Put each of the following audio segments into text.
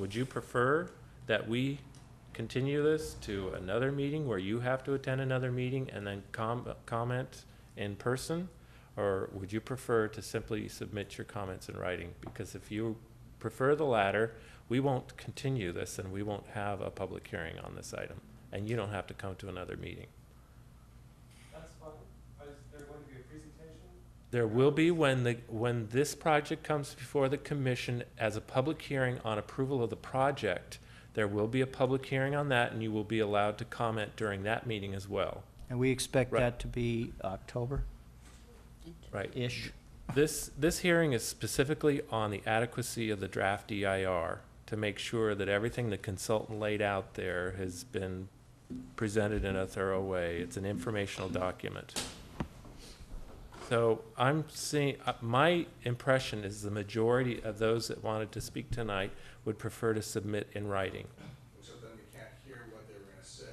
Would you prefer that we continue this to another meeting where you have to attend another meeting and then com- comment in person? Or would you prefer to simply submit your comments in writing? Because if you prefer the latter, we won't continue this and we won't have a public hearing on this item. And you don't have to come to another meeting. That's fine. Is there going to be a presentation? There will be when the, when this project comes before the commission as a public hearing on approval of the project, there will be a public hearing on that and you will be allowed to comment during that meeting as well, And we expect Right. that to be October-ish. right? This, this hearing is specifically on the adequacy of the draft EIR to make sure that everything the consultant laid out there has been presented in a thorough way. It's an informational document. So I'm seeing, uh, my impression is the majority of those that wanted to speak tonight would prefer to submit in writing. So then we can't hear what they were gonna say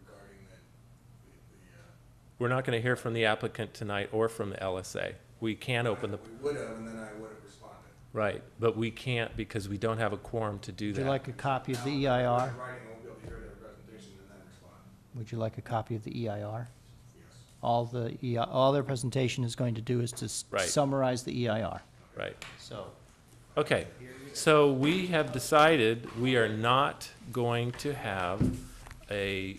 regarding the, the, the, uh. We're not going to hear from the applicant tonight or from the LSA. We can open the, We would have, and then I would have responded. right, but we can't because we don't have a quorum to do Would you that. like a copy of the E Now, EIR? in Writing, I won't be able to hear their presentation and then respond, Would you like a copy of the EIR? yes. All the, EI all their presentation is going to do is to s- Right. summarize the EIR. Right. So Okay, so we have decided we are not going to have a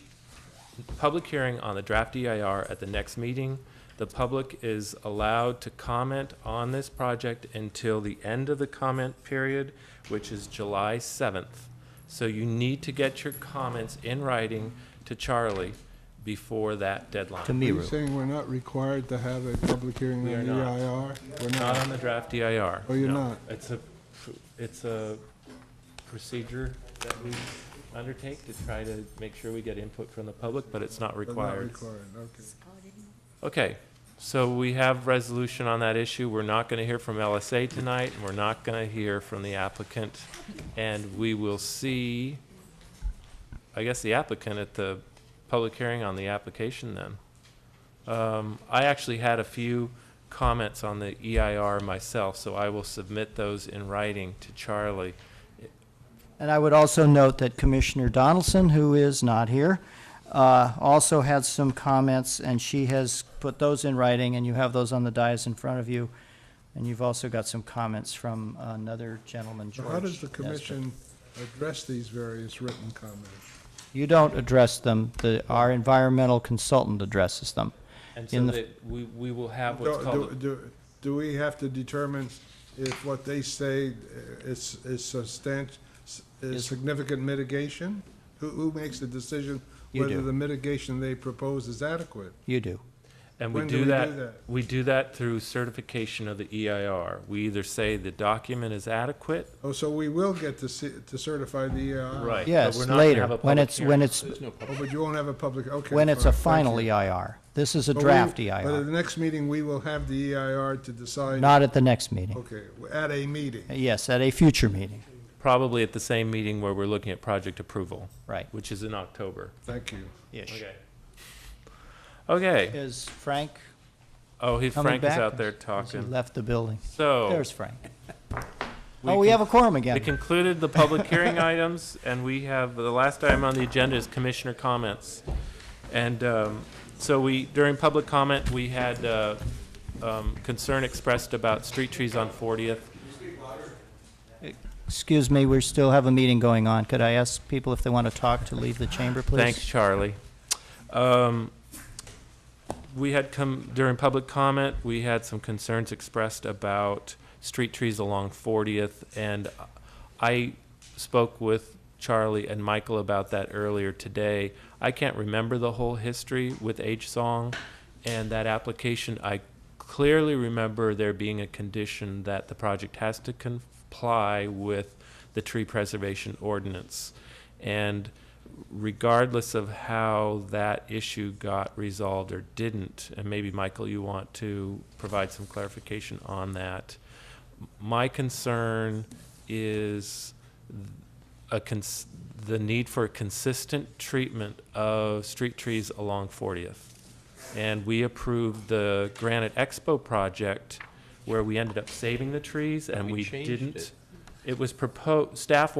public hearing on the draft EIR at the next meeting. The public is allowed to comment on this project until the end of the comment period, which is July 7th. So you need to get your comments in writing to Charlie before that to deadline. Are you Miru. saying we're not required to have a public hearing on We the are not. EIR? We're Not on not. the draft EIR. Oh, you're no. not? It's a, it's a procedure that we undertake to try to make sure we get input from the public, but it's not We're not required. required, okay. Okay, so we have resolution on that issue. We're not going to hear from LSA tonight, and we're not going to hear from the applicant. And we will see, I guess, the applicant at the public hearing on the application then. Um, I actually had a few comments on the EIR myself, so I will submit those in writing to Charlie. And I would also note that Commissioner Donaldson, who is not here, uh, also had some comments, and she has put those in writing, and you have those on the dais in front of you. And you've also got some comments from another gentleman, So George. how does the Nesbitt. commission address these various written comments? You don't address them, the, our environmental consultant addresses them. And In so the- that we, we will have what's Do- called, Do a- do- do we have to determine if what they say is is substantial, Is- is significant mitigation? Who who makes the decision You whether do. the mitigation they propose is adequate? You do. and we when do do we do that, that? we do that through certification of the EIR. We either say the document is adequate Oh, so we will get to see- to certify the EIR? Right. but Yes, we're not gonna later, have a when public it's, hearing. when it's, Oh, but you won't have a public, okay. when it's a fine, thank final you. EIR. This is a But we- draft E But at EIR, the next meeting, we will have the EIR to decide. not at the next meeting. Okay, at a meeting. Yes, at a future meeting, probably at the same meeting where we're looking at project approval, right. which is in October. Thank you. Ish. Okay. Is Frank Oh, he, coming Frank is back? out there Has he talking. left the building? So There's Frank. we Oh, we con- have a quorum we again. concluded the public hearing items, and we have, the last item on the agenda is commissioner comments. And um, so we, during public comment, we had uh, um, concern expressed about street trees on 40th. Excuse me, we still have a meeting going on. Could I ask people if they want to talk to leave the chamber, please? Thanks, Charlie. Um, We had come, during public comment, we had some concerns expressed about street trees along 40th, and I spoke with Charlie and Michael about that earlier today. I can't remember the whole history with H Song and that application. I clearly remember there being a condition that the project has to comply with the tree preservation ordinance. And regardless of how that issue got resolved or didn't, and maybe Michael, you want to provide some clarification on that. My concern is a cons- the need for consistent treatment of street trees along 40th. And we approved the Granite Expo project where we ended up saving the trees and we didn't. It was proposed, staff